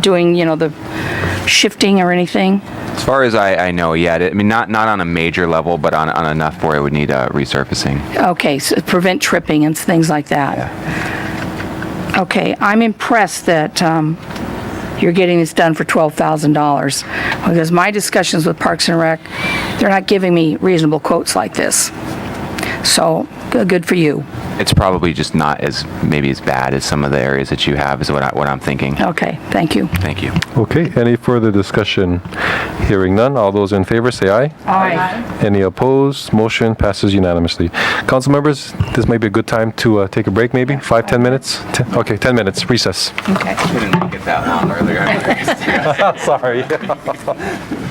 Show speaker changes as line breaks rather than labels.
doing, you know, the shifting or anything?
As far as I, I know, yet I mean, not not on a major level, but on, on enough where it would need uh, resurfacing.
Okay, so prevent tripping and things like that. Okay, I'm impressed that um, you're getting this done for $12,000, because my discussions with Parks and Rec, they're not giving me reasonable quotes like this. So, g- good for you.
It's probably just not as maybe as bad as some of the areas that you have is what I, what I'm thinking.
Okay, thank you.
Thank you.
Okay, any further discussion? Hearing none, all those in favor say aye.
Aye.
Any opposed? Motion passes unanimously. Council members, this may be a good time to uh, take a break, maybe? Five, 10 minutes? Ten- Okay, 10 minutes, recess.
Okay.
Couldn't make it that long earlier.
Sorry.